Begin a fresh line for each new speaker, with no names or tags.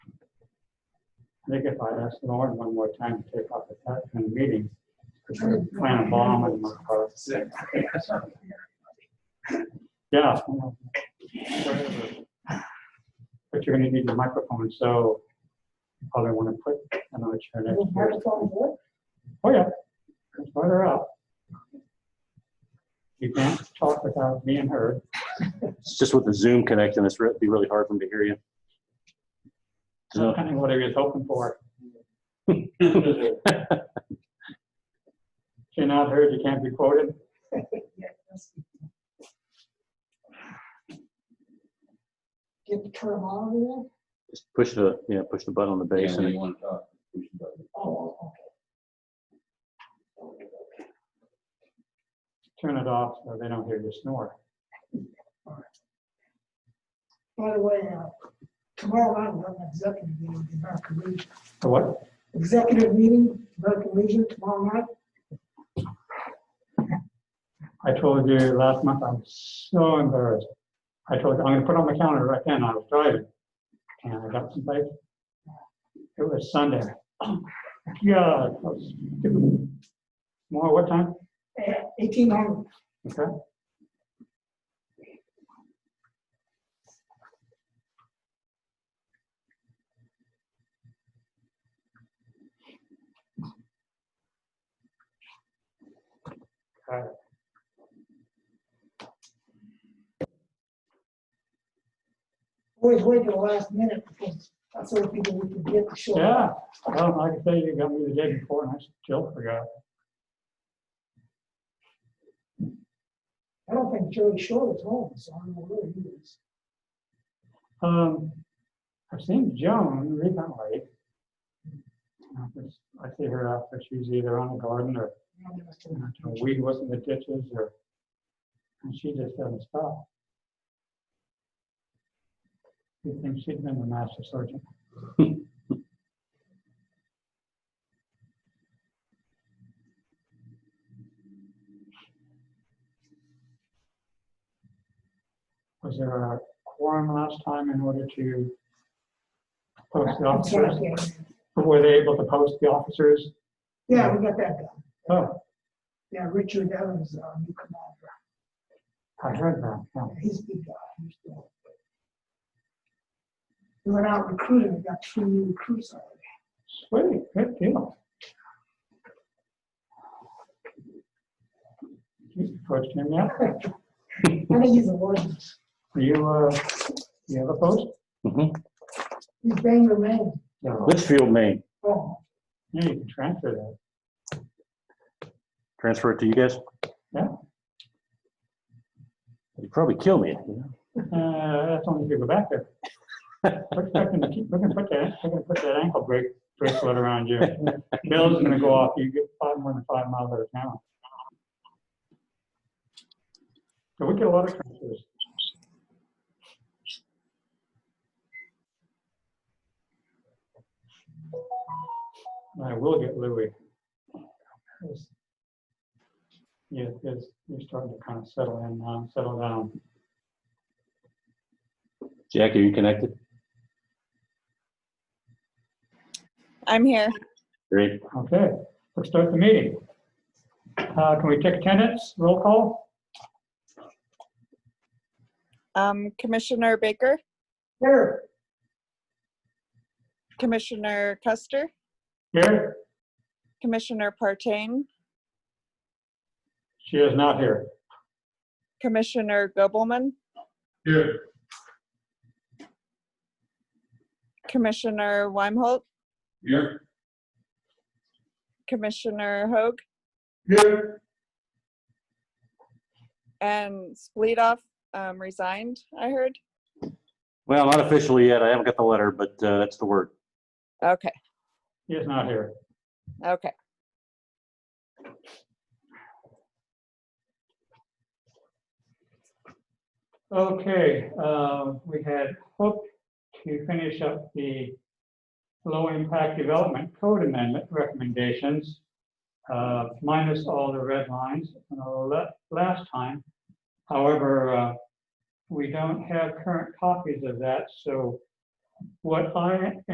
Nick, if I'd asked Lauren one more time to take off the cut from the meetings, because we're planning a bomb in my car. Yeah. But you're gonna need the microphone, so you probably wanna put another chair next to
We have
yours.
it on board?
Oh, yeah. It's farther out. You can't talk without being heard.
It's just with the Zoom connecting, it's re- be really hard for me to hear you.
So
So-
kind of what he was hoping for. If You're not heard, you can't be quoted.
Get the term on there?
Just push the, yeah, push the button on the base and
want to talk. we should talk.
Oh, okay.
Turn it off so they don't hear you snore.
By the way, uh, tomorrow night, we're having an executive meeting with the American Legion.
So what?
Executive meeting, American Legion tomorrow night.
I told you last month, I'm so embarrassed. I told you, I'm gonna put it on my calendar right then. I was driving. And I got someplace. It was Sunday. Oh Yeah. More, what time?
Eighteen hundred.
Okay. Okay.
Always wait till the last minute because that's what people we can get to show. up.
Yeah, well, like I say, you got me the day before and I still forgot.
I don't think Jerry Short is home, so I don't know where he is.
Um, I've seen Joan recently. I just- I see her out there, she's either on the garden or
I don't know if
you know,
it's-
doing weed was in the ditches or, and she just doesn't stop. You think she'd been the master surgeon? Was there a quorum last time in order to post the
I'm sorry,
officers?
I can't-
Were they able to post the officers?
Yeah, we got that done.
Oh,
Yeah, Richard Evans, our new commander.
I heard that, yeah.
He's a good guy. He's doing good. We went out recruiting, we got two new recruits already.
Sweet, good deal. You Approached him yet?
I think he's a warden.
Do you, uh, you have a post?
Mhm.
He's Bangor, Maine.
No.
Litchfield, Maine.
Oh,
Yeah, you can transfer that.
Transfer it to you guys?
Yeah.
You'd probably kill me. you know?
Uh, that's only if you go back there. We're expecting to keep- we're gonna put that, we're gonna put that ankle break, bracelet around you. Bill's gonna go off, you get five more than five miles out of town. So we get a lot of transfers. I will get Louis. Yeah, it's, you're starting to kind of settle in, now, settle down.
Jack, are you connected?
I'm here.
Great.
Okay, let's start the meeting. Uh, Can we take attendance, roll call?
Um, Commissioner Baker,
there.
Commissioner Custer,
Here,
Commissioner Partain,
she is not here.
Commissioner Gobelman,
Here.
Commissioner Weimholt,
Here,
Commissioner Hoag,
Here.
and Splitoff um, resigned, I heard.
Well, not officially yet. I haven't got the letter, but uh, that's the word.
Okay,
He is not here.
okay.
Okay, uh, we had hoped to finish up the low-impact development code amendment recommendations, uh, minus all the red lines from the la- last time. However, uh, we don't have current copies of that, so what I